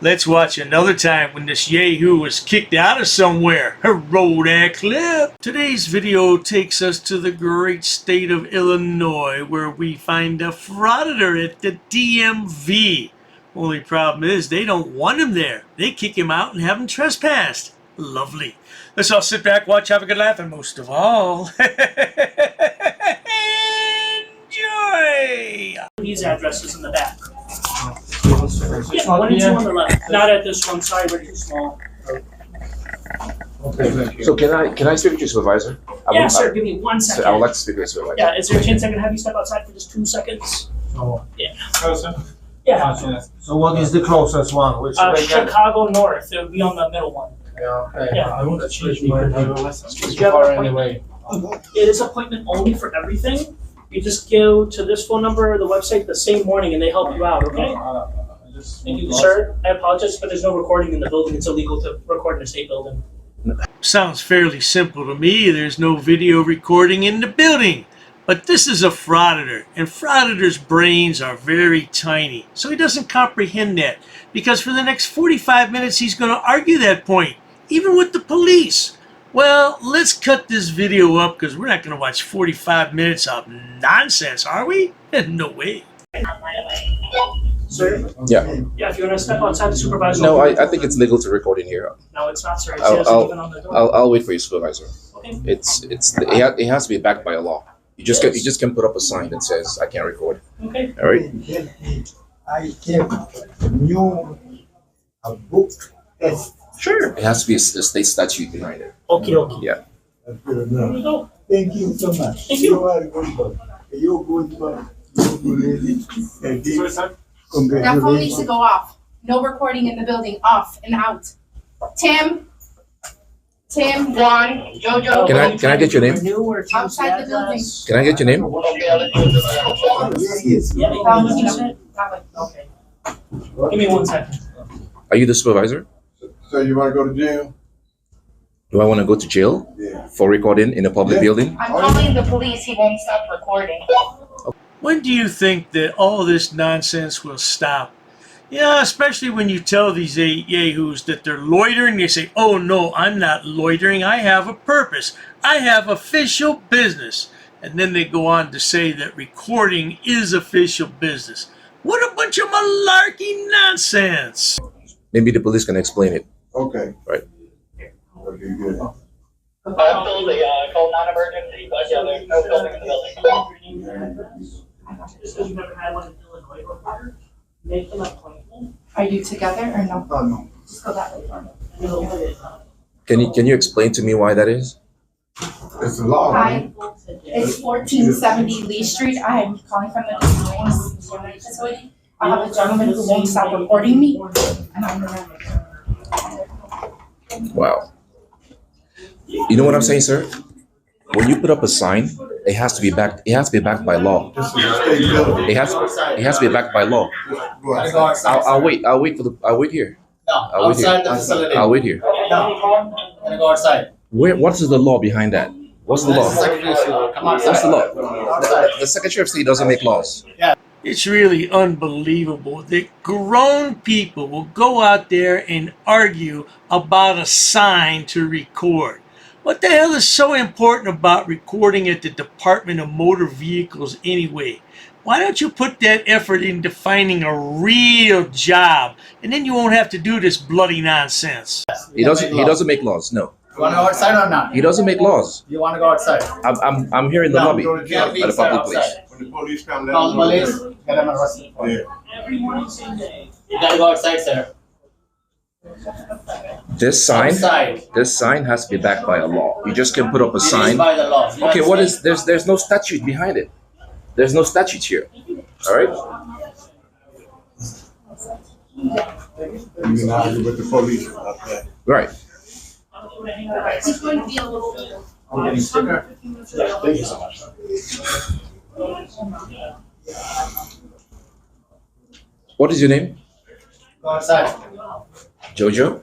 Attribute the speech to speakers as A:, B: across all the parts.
A: Let's watch another time when this Yahoo was kicked out of somewhere. Roll that clip. Today's video takes us to the great state of Illinois where we find a frauditor at the DMV. Only problem is they don't want him there. They kick him out and have him trespassed. Lovely. Let's all sit back, watch, have a good laugh, and most of all, enjoy.
B: These addresses in the back. Yeah, one and two on
C: Okay,
B: the left, not at this one, sorry, we're too small.
C: thank you.
D: So can I, can I speak to your supervisor? I
B: Yeah,
D: would-
B: sir, give me one
D: I would
B: second.
D: like to speak to your supervisor.
B: Yeah, is there a chance I can have you step outside for just two seconds?
C: So-
B: Yeah.
C: Closer?
B: Yeah,
C: So what is the closest one? Which
B: uh,
C: way can?
B: Chicago North, it would be on the middle one.
C: Yeah, okay.
B: Yeah.
C: I want to change my
B: Did
C: address.
B: you have an
C: Far
B: appointment?
C: anyway.
B: It is appointment only for everything. You just go to this phone number or the website the same morning and they help you out, okay? Thank you, sir. I apologize, but there's no recording in the building. It's illegal to record in a state building.
A: Sounds fairly simple to me. There's no video recording in the building. But this is a frauditor, and frauditor's brains are very tiny. So he doesn't comprehend that. Because for the next 45 minutes, he's going to argue that point, even with the police. Well, let's cut this video up because we're not going to watch 45 minutes of nonsense, are we? no way.
B: Sir?
D: Yeah.
B: Yeah, if you want to step outside the supervisor.
D: No, I, I think it's legal to record in here.
B: No, it's not, sir. It
D: I'll-
B: says
D: I'll-
B: even on the door.
D: I'll, I'll wait for your supervisor.
B: Okay.
D: It's, it's, it ha- it has to be backed by a law. You just can, you just can put up a sign that says, I can't record,
B: Okay.
D: all right?
E: I can new a book test.
B: Sure.
D: It has to be a s- a state statute behind it.
B: Okay, okay. Here we go.
E: Thank you so much.
B: Thank you.
E: are good one. You good one. You good lady. And this-
F: That phone needs to
E: Congratulations.
F: go off. No recording in the building, off and out. Tim? Tim, Juan, Jojo?
D: Can I- can I get your name?
B: Renew or change
F: Outside the building.
B: address?
D: Can I get your name?
E: Yes, yes.
B: Yeah, you
F: Um,
B: can use it.
F: That way.
B: Okay. Give me one second.
D: Are you the supervisor?
G: So you want to go to jail?
D: Do I want to go to jail
G: Yeah.
D: for recording in a public
G: Yeah.
D: building?
F: I'm calling the police, he won't stop recording.
A: When do you think that all this nonsense will stop? Yeah, especially when you tell these a- yahoos that they're loitering. They say, oh no, I'm not loitering. I have a purpose. I have official business. And then they go on to say that recording is official business. What a bunch of malarkey nonsense!
D: Maybe the police can explain it.
G: Okay.
D: Right.
G: Okay, good.
H: Absolutely, uh, call non-emergency, but yeah, there's no building in the building.
B: Just because you've never had one in Illinois before, make them appointment.
F: Are you together or no?
E: Oh, no.
F: Just go that way. Juan.
B: and it'll be it.
D: Can you, can you explain to me why that is?
G: It's a law.
F: Hi, it's fourteen seventy Lee Street. I'm calling from the Des Moines facility. I have a gentleman who won't stop recording me. And I'm around.
D: Wow. You know what I'm saying, sir? When you put up a sign, it has to be backed, it has to be backed by law.
G: This is a state building.
D: It has, it has to be backed by law.
G: Go outside.
D: I'll, I'll wait, I'll wait for the, I'll wait here,
I: No,
D: I'll wait here.
I: outside the
G: Outside.
I: facility.
D: I'll wait here.
I: I'm gonna go outside.
D: Where, what is the law behind that? What's the
I: That's the
D: law?
I: secretary, so come
D: What's the
I: outside.
D: law? The, the Secretary of State doesn't make laws.
A: It's really unbelievable that grown people will go out there and argue about a sign to record. What the hell is so important about recording at the Department of Motor Vehicles anyway? Why don't you put that effort into finding a real job and then you won't have to do this bloody nonsense?
D: He doesn't, he doesn't make laws, no.
I: You wanna go outside or not?
D: He doesn't make laws.
I: You wanna go outside?
D: I'm, I'm, I'm here in the
I: No,
D: lobby.
G: Go to jail.
I: Can't be
D: At a
I: inside,
D: public place.
I: outside.
G: When the police come, let
I: Call
G: them
I: the
G: know.
I: police, get them arrested.
G: Yeah.
B: Every morning, same day.
I: You gotta go outside, sir.
D: This sign,
I: Outside. It
D: this sign has to be backed by a law. You just can put up a
I: is
D: sign.
I: by the law. You
D: Okay, what is,
I: understand?
D: there's, there's no statute behind it. There's no statute here, all right?
G: You can argue with the police about that.
D: Right.
F: It's going to be a little bit.
I: I'm getting sicker.
G: Thank you so much.
D: What is your name?
I: Go outside.
D: Jojo?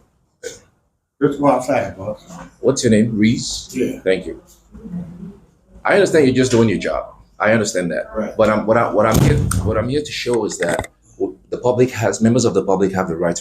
G: Just go outside, boss.
D: What's your name? Reese?
G: Yeah.
D: Thank you. I understand you're just doing your job. I understand that.
G: Right.
D: But I'm, what I, what I'm here, what I'm here to show is that the public has, members of the public have the right to